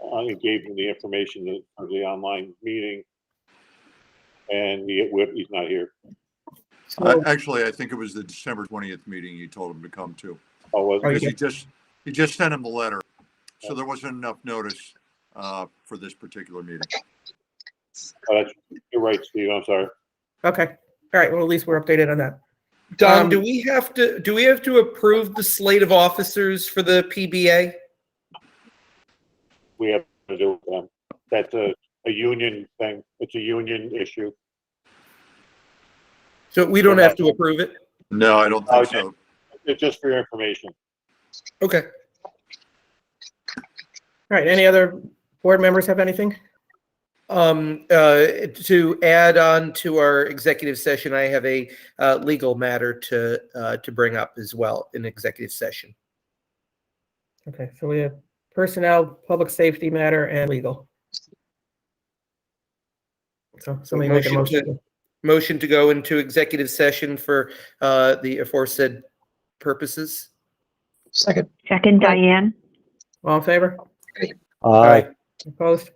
I gave him the information for the online meeting. And he, he's not here. I- So, Actually, I think it was the December 20th meeting you told him to come to. Oh, was Oh, Because it? yeah. he just, he just sent him the letter. So there wasn't enough notice uh, for this particular meeting. Oh, that's- You're right, Steve, I'm sorry. okay, all right, well, at least we're updated on that. Um, Dom, do we have to, do we have to approve the slate of officers for the PBA? We have to do with them. That's a, a union thing. It's a union issue. So we don't have to approve it? No, I don't think Okay. so. It's just for your information. Okay. All right, any other board members have anything? Um, uh, to add on to our executive session, I have a, uh, legal matter to, uh, to bring up as well in executive session. Okay, so we have personnel, public safety matter, and legal. So somebody make a Motion to- motion. Motion to go into executive session for, uh, the aforesaid purposes. Second. Second, Diane. All in favor? Aye. Opposed?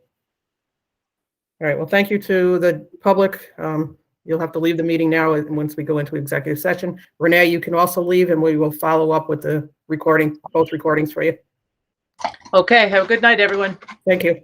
All right, well, thank you to the public. Um, You'll have to leave the meeting now, and once we go into executive session. Renee, you can also leave, and we will follow up with the recording, both recordings for you. Okay, have a good night, everyone. Thank you.